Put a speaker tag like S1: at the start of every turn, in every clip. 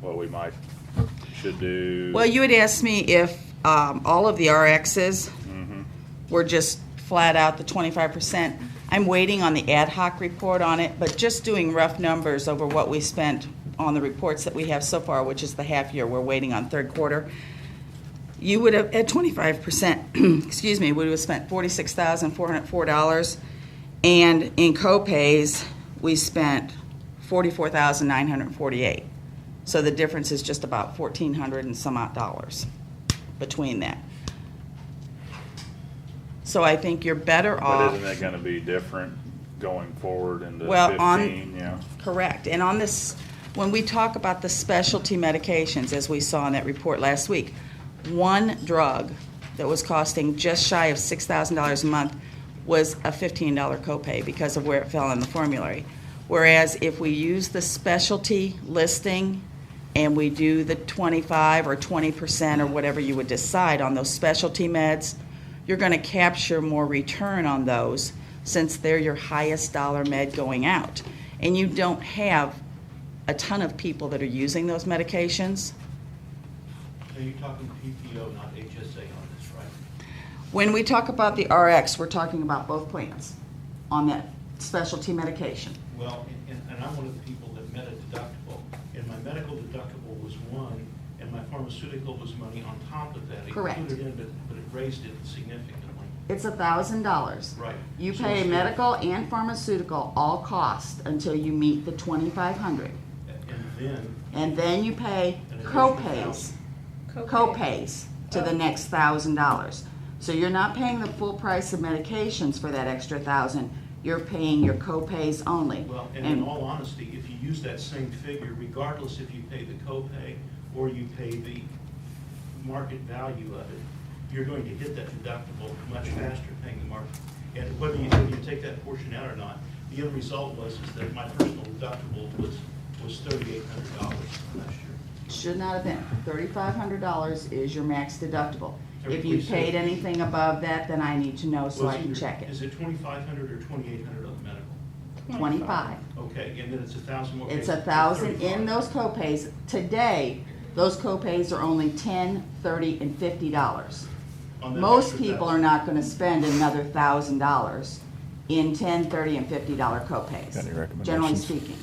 S1: what we might, should do.
S2: Well, you had asked me if um, all of the RXs were just flat out the 25%. I'm waiting on the ad hoc report on it, but just doing rough numbers over what we spent on the reports that we have so far, which is the half year, we're waiting on third quarter. You would have, at 25%, excuse me, we would have spent $46,404. And in co-pays, we spent 44,948. So the difference is just about 1,400 and some odd dollars between that. So I think you're better
S1: But
S2: off.
S1: isn't it gonna be different going forward into
S2: Well, on-
S1: fifteen, yeah?
S2: Correct. And on this, when we talk about the specialty medications, as we saw in that report last week, one drug that was costing just shy of $6,000 a month was a $15 copay because of where it fell in the formulary. Whereas if we use the specialty listing and we do the 25 or 20% or whatever you would decide on those specialty meds, you're going to capture more return on those since they're your highest dollar med going out. And you don't have a ton of people that are using those medications.
S3: So you're talking PPO, not HSA on this, right?
S2: When we talk about the RX, we're talking about both plans on that specialty medication.
S3: Well, and- and, and I'm one of the people that met a deductible, and my medical deductible was one, and my pharmaceutical was money on top of that. It
S2: Correct.
S3: Included in, but, but it raised it significantly.
S2: It's $1,000.
S3: Right.
S2: You
S3: So
S2: pay
S3: it's-
S2: medical and pharmaceutical all cost until you meet the 2500
S3: And then,
S2: and then you pay
S3: An additional
S2: copays. Oh.
S3: thousand.
S2: co-pays to the next thousand dollars. So you're not paying the full price of medications for that extra thousand, you're paying your co-pays only.
S3: well, and in
S2: And
S3: all honesty, if you use that same figure, regardless if you pay the copay or you pay the market value of it, you're going to hit that deductible much faster paying the market. And whether you, whether you take that portion out or not, the end result was is that my personal deductible was, was thirty-eight hundred dollars last year.
S2: it should not have been, thirty-five hundred dollars is your max deductible. If you
S3: Thirty-three cents.
S2: paid anything above that, then I need to know so
S3: Was
S2: I can
S3: either-
S2: check it.
S3: Is it twenty-five hundred or twenty-eight hundred on the medical?
S2: Twenty-five.
S3: Okay, and then it's a thousand more.
S2: It's
S3: okay,
S2: a thousand
S3: 35.
S2: in those co-pays. Today, those co-pays are only ten, thirty, and fifty dollars.
S3: On that
S2: Most
S3: extra
S2: people
S3: thousand.
S2: are not gonna spend another thousand dollars in ten, thirty, and fifty dollar copays.
S4: Got any recommendations?
S2: Generally speaking,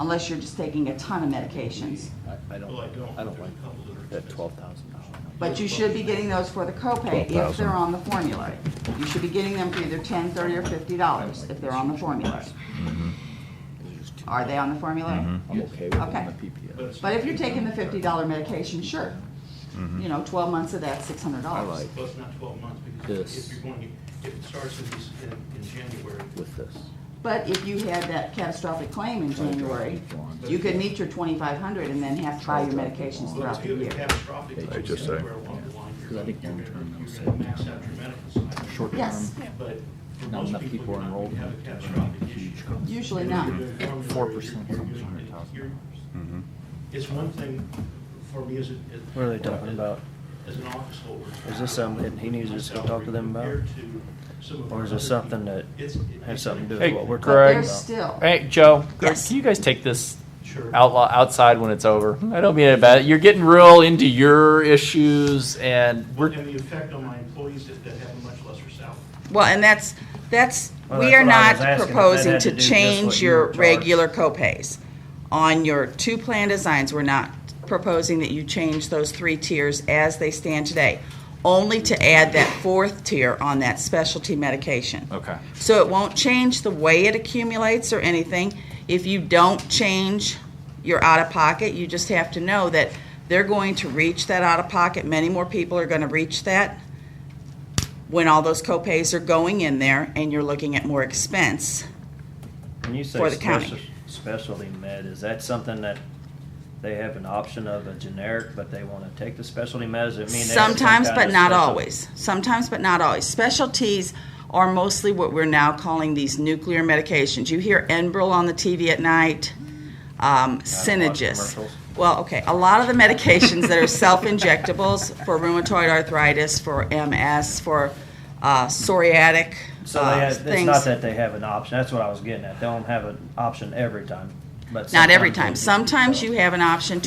S2: unless you're just taking a ton of medications.
S4: I
S3: Well, Oh, I don't.
S4: don't, I don't like
S3: There's a couple that are
S4: that
S3: expensive.
S4: twelve thousand dollar.
S2: But you should be getting those for the copay if
S4: 12,000.
S2: they're on the formulary. You should be getting them for either ten, thirty, or fifty dollars if they're on the formulary. Are they on the formulary?
S4: I'm okay with it
S2: Okay.
S4: on the PPO.
S3: it's
S2: But
S3: not-
S2: if you're taking the fifty dollar medication, sure. You know, twelve months of that's six hundred
S4: I
S2: dollars.
S4: like
S3: Well, it's not twelve months, because
S4: This.
S3: if you're going, if it starts in, this- in, in January,
S4: with this.
S2: But if you had that catastrophic claim in
S4: uh,
S2: January, you could meet your twenty-five hundred and then have to buy your medications
S3: well,
S2: throughout
S3: if
S2: the
S3: you have a
S2: year.
S3: catastrophic,
S4: I
S3: which
S4: just
S3: is
S4: say.
S3: anywhere along the line, you're
S4: 'Cause I
S3: gonna,
S4: think
S3: you're
S4: long-term
S3: gonna- you're
S4: savings.
S3: gonna max out your medical side.
S4: Short term.
S2: Yes.
S3: But for
S4: Not
S3: most
S4: enough
S3: people,
S4: people
S3: you're
S4: are
S3: not
S4: enrolled.
S3: gonna have a catastrophic issue.
S4: Huge company.
S2: Usually not.
S4: Four percent
S3: You're-
S4: comes
S3: you're-
S4: hundred thousand.
S3: you're-
S1: Mhm.
S3: It's one thing for me as a. as-
S5: What are they talking about?
S3: As an office holder.
S5: Is this something he needs us to talk to them about?
S3: Compared to some of
S5: Or is
S3: our
S5: this
S3: other
S5: something
S3: people,
S5: that
S3: it's- it's
S5: has something to do
S3: an-
S5: with what we're
S2: But
S5: talking
S2: there's
S5: about?
S2: still,
S6: Hey, Joe, Greg,
S2: Yes.
S6: can you guys take this
S3: Sure.
S6: outlaw outside when it's over? I don't mean it bad. You're getting real into your issues, and we're
S3: And the effect on my employees that, that have a much lesser salary.
S2: well, and that's, that's,
S5: Well,
S2: we
S5: that's
S2: are
S5: what I
S2: not
S5: was asking, if that
S2: proposing
S5: had to
S2: to
S5: do just
S2: change
S5: what you
S2: your
S5: were charged.
S2: regular copays. On your two plan designs, we're not proposing that you change those three tiers as they stand today, only to add that fourth tier on that specialty medication.
S6: okay.
S2: So it won't change the way it accumulates or anything. If you don't change your out of pocket, you just have to know that they're going to reach that out of pocket. Many more people are going to reach that when all those copays are going in there and you're looking at more expense.
S5: When you say
S2: for the county.
S5: special- specialty med, is that something that they have an option of a generic, but they want to take the specialty med? Does it mean? they have some
S2: Sometimes,
S5: kind
S2: but
S5: of
S2: not
S5: special-
S2: always. Sometimes, but not always. Specialties are mostly what we're now calling these nuclear medications. You hear Enbrel on the TV at night, um, Synagis.
S5: commercials.
S2: Well, okay, a lot of the medications that are self-injectables for rheumatoid arthritis, for MS, for uh, psoriatic
S5: So
S2: uh,
S5: they have, it's
S2: things.
S5: not that they have an option. That's what I was getting at. They don't have an option every time, but.
S2: Not every time.
S5: sometimes they
S2: Sometimes you
S5: do.
S2: have an option